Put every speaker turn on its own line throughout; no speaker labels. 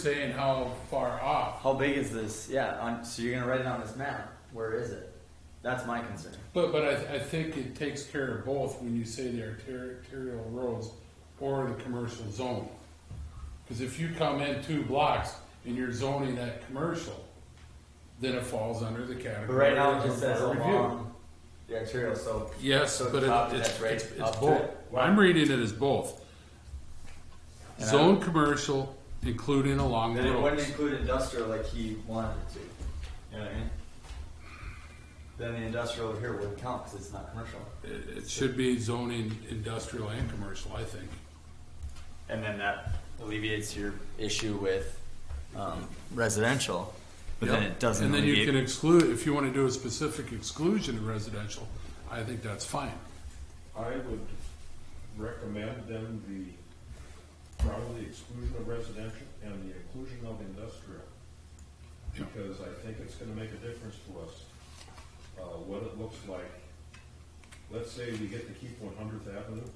saying how far off.
How big is this? Yeah, on, so you're gonna write it on this map. Where is it? That's my concern.
But, but I, I think it takes care of both when you say the arter- arterial roads or the commercial zone. Cause if you come in two blocks and you're zoning that commercial, then it falls under the category.
But right now it just
of
says
our review.
along the arterial, so.
Yes,
so the
but
top
it-
is
it's,
that right
it's, it's
up to
both.
it.
I'm reading it as both.
And I-
Zone commercial, including along
Then
the
it wouldn't
roads.
include industrial like he wanted it to. You know what I mean? Then the industrial here wouldn't count because it's not commercial.
It it should be zoning industrial and commercial, I think.
And then that alleviates your issue with um, residential, but then
Yep.
it doesn't.
And then you
alleviate-
can exclude, if you want to do a specific exclusion of residential, I think that's fine.
I would recommend then the, probably exclusion of residential and the inclusion of industrial.
Yeah.
Because I think it's gonna make a difference to us, uh, what it looks like. Let's say we get to keep one hundredth avenue.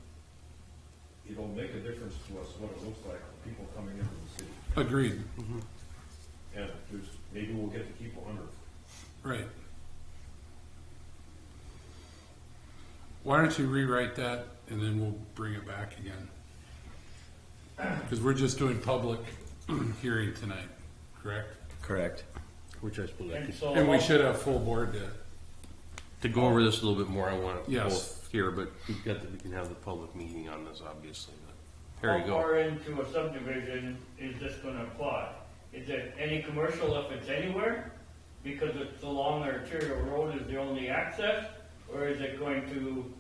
It'll make a difference to us what it looks like for people coming into the city.
Agreed,
And there's, maybe we'll get to keep one hundredth.
right. Why don't you rewrite that and then we'll bring it back again? Because we're just doing public hearing tonight, correct?
Correct.
Which I suppose I
And
could,
so,
And we
I'll-
should have full board to,
to go over this a little bit more, I want to
Yes.
both here, but we've got, the- we can have the public meeting on this, obviously. but There you
How
go.
far into a subdivision is this gonna apply? Is it any commercial if it's anywhere? Because it's along the arterial road is the only access? Or is it going to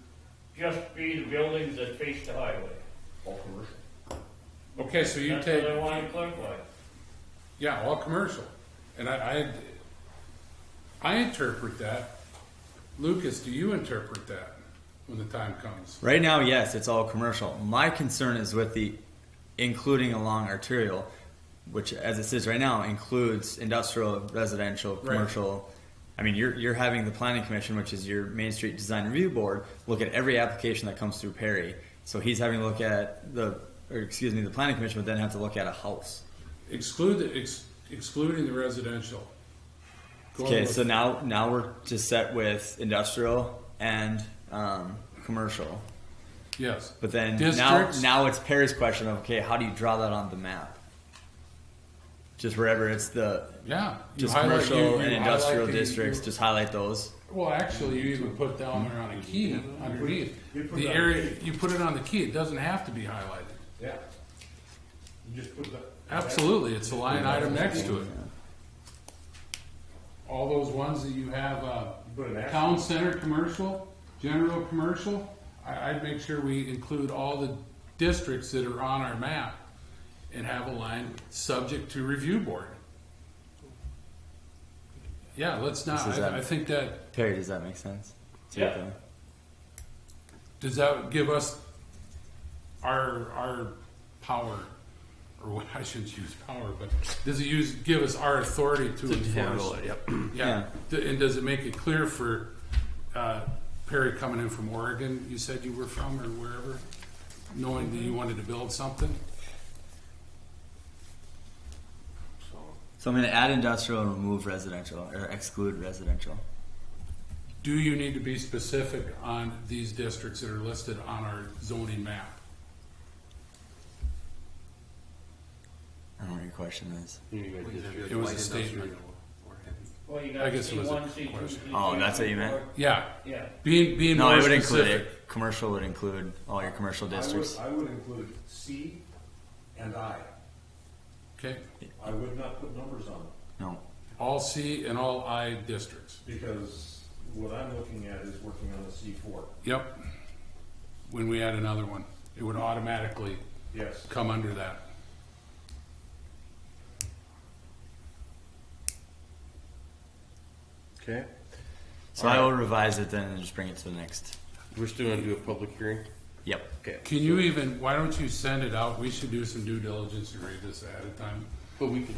just be the buildings that face the highway?
all commercial.
okay, so you
That's what
take,
I wanna clarify.
yeah, all commercial. And I, I, I interpret that, Lucas, do you interpret that when the time comes?
Right now, yes, it's all commercial. My concern is with the including along arterial, which as it says right now includes industrial, residential, commercial. I mean, you're, you're having the planning commission, which is your Main Street Design Review Board, look at every application that comes through Perry. So he's having to look at the, or excuse me, the planning commission would then have to look at a house.
Exclude, the- ex- excluding the residential. Go
Okay,
with-
so now now we're just set with industrial and um, commercial.
Yes,
But then
Districts?
now now it's Perry's question of okay, how do you draw that on the map? Just wherever it's the
yeah. You
just
highlight-
commercial
you- you
and industrial
highlight the-
districts, just highlight those.
Well, actually, you even put down there on a key underneath.
you put
The
it on
area,
the
you put it on the key, it doesn't have to be highlighted.
Yeah. You just put that.
Absolutely, it's a line item next to it. All those ones that you have, uh,
Put an asterisk.
town center commercial, general commercial, I, I'd make sure we include all the districts that are on our map and have a line subject to review board. Yeah, let's not,
This is
I,
that-
I think that,
Perry, does that make sense? To
Yeah.
them?
does that give us our, our power? Or what, I shouldn't use power, but does it use, give us our authority to
To handle
enforce?
it, yep.
Yeah, D- and does it make it clear for uh, Perry coming in from Oregon, you said you were from, or wherever, knowing that you wanted to build something?
So,
So I'm going to add industrial and remove residential or exclude residential.
Do you need to be specific on these districts that are listed on our zoning map?
I don't know what your question is.
you need a district.
It was a statement.
Well, you
I
got
guess it
C
was a
one, C two,
question.
C three.
Oh, that's what you meant?
four.
Yeah,
Yeah,
being, being
No,
more
I would include
specific.
it. Commercial would include all your commercial
I would-
districts.
I would include C and I.
Okay,
I would not put numbers on it,
No.
all C and all I districts,
because what I'm looking at is working on a C four,
yep. When we add another one, it would automatically
yes.
come under that.
Okay,
So I will revise it then and just bring it to the next.
we're still gonna do a public hearing?
Yep.
Okay.
Can you even, why don't you send it out? We should do some due diligence and read this ahead of time.
But we can,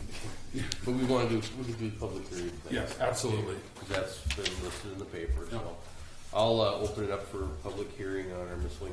but we want to do, we can do the public hearing. thing.
Yes, absolutely.
Because That's been listed in the paper, so. I'll, uh, open it up for public hearing on our miscellaneous